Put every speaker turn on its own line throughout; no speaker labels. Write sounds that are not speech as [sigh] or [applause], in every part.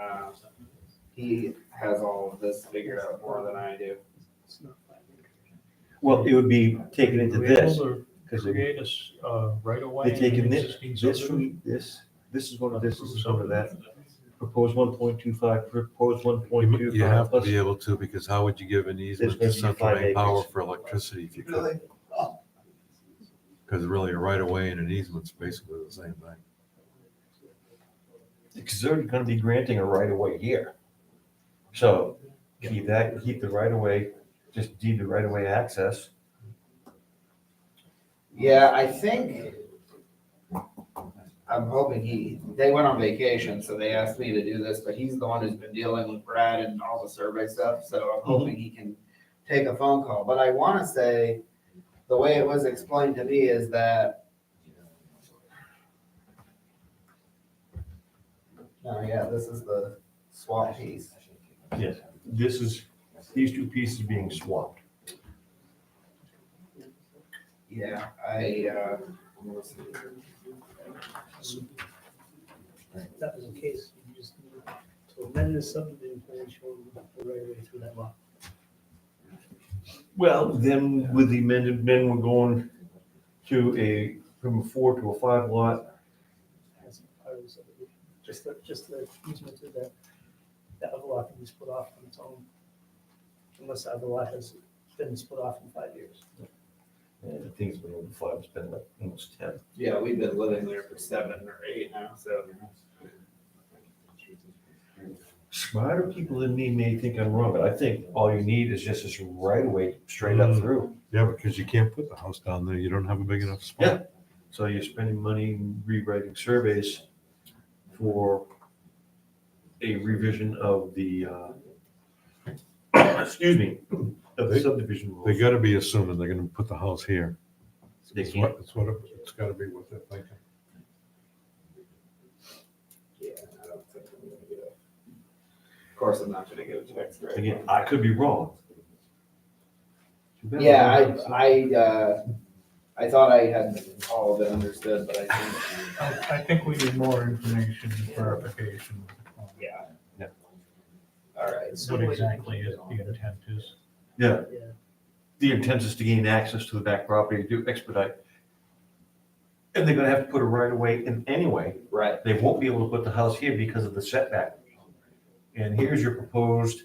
um, he has all of this figured out more than I do.
It's not five acres.
Well, it would be taken into
We're able
this,
to
because they
Create a, s- uh, right away.
they taken
in an
this,
existing
this
subdivision.
from this, this is one of this, this is one of that.
Subdivision.
Proposed one point two five, proposed one point two
You
five
have to
plus,
be able to, because how would you give an easement to
There's gonna be
Central
five
Maine Power
acres.
for electricity if you could? Because really, a right of way and an easement's basically the same thing.
because they're gonna be granting a right of way here. So keep that, keep the right of way, just deed the right of way access.
Yeah, I think, I'm hoping he, they went on vacation, so they asked me to do this, but he's the one who's been dealing with Brad and all the survey stuff, so I'm hoping he can take a phone call. But I want to say, the way it was explained to me is that. Oh, yeah, this is the swap piece.
Yes. This is, these two pieces being swapped.
Yeah, I, uh,
If that was the case, you just need to amend the subdivision plan showing the right of way through that lot.
Well, then with the amended, then we're going to a, from a four to a five lot.
As part of the subdivision, just the, just the easement to that, that other lot can be split off on its own. Unless that other lot has been split off in five years.
And the thing's been over five, it's been like almost ten.
yeah, we've been living there for seven or eight now, so.
Smarter people than me may think I'm wrong, but I think all you need is just this right away straight up
Mm.
through.
Yeah, because you can't put the house down there. You don't have a big enough
Yeah.
spot.
So you're spending money rewriting surveys for a revision of the, uh, [coughs] excuse me, of the
They-
subdivision rules.
They gotta be assuming they're gonna put the house here.
They
It's
can't.
what, it's what, it- it's gotta be what they're thinking.
Yeah, I don't think I'm gonna get it. Of course, I'm not gonna get a text right
Again, I could be wrong. Too bad.
Yeah, I, I, uh, I thought I had all of it understood, but I think,
I I think we need more information and clarification. on
[laughs] yeah.
Yeah.
All right,
What exactly is the intent is.
Yeah,
Yeah,
the intent is to gain access to the back property to expedite. And they're gonna have to put a right of way in anyway.
right,
They won't be able to put the house here because of the setback. And here's your proposed,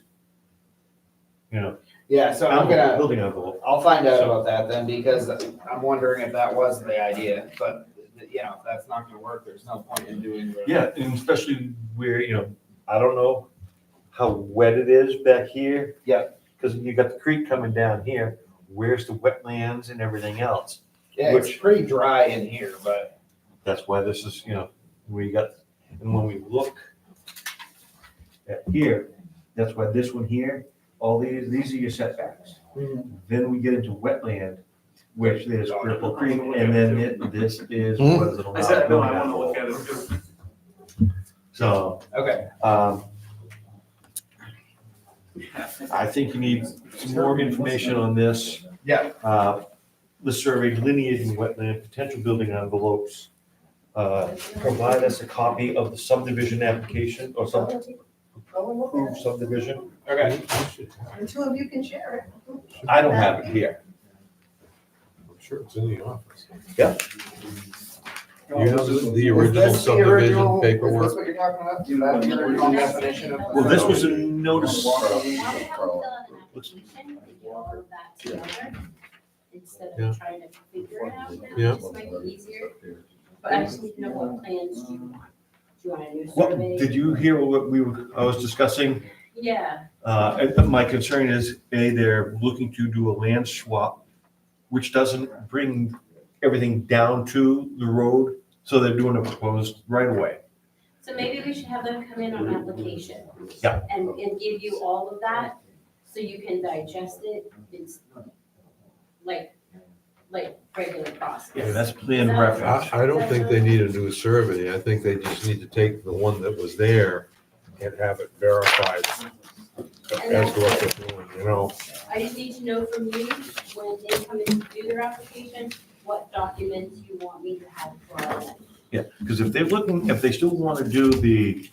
you know,
yeah, so I'm gonna,
building envelope.
I'll find out about that then, because I'm wondering if that was the idea, but, you know, if that's not gonna work, there's no point in doing the.
Yeah, and especially where, you know, I don't know how wet it is back here.
Yeah.
Because you got the creek coming down here. Where's the wetlands and everything else?
Yeah, it's
Which-
pretty dry in here, but,
That's why this is, you know, we got, and when we look at here, that's why this one here, all these, these are your setbacks.
Hmm.
Then we get into wetland, which there's
Oh,
Cripple Creek, and then it- this is.
I said, no, I wanna look at it too.
So,
okay,
um, I think you need some more information on this,
yeah,
uh, the survey delineating wetland, potential building envelopes. Uh, provide us a copy of the subdivision application or some approved subdivision.
okay.
The two of you can share it.
I don't have it here.
I'm sure it's in the office.
Yeah.
You have the- the
Is
original
Oh, this the
subdivision
original- Is
paperwork.
this what you're talking about? Do you have the original definition of?
Well, this was a notice.
Why we haven't done an application, we can all of that together, instead
Yeah.
of trying to figure it out now,
Yeah.
this might be easier. But I just need to know what plans do you want? Do you want a new
What,
survey?
did you hear what we, were- I was discussing?
Yeah,
Uh, and my concern is, A, they're looking to do a land swap, which doesn't bring everything down to the road, so they're doing a proposed right of way.
so maybe we should have them come in on application.
Yeah.
And, and give you all of that, so you can digest it, it's like, like regular process.
Yeah, that's plan of
I,
reference.
I don't think they need a new survey. I think they just need to take the one that was there and have it verified as to what they're doing, you know?
I just need to know from you, when they come in to do their application, what documents you want me to have for them.
Because if they're looking, if they still want to do the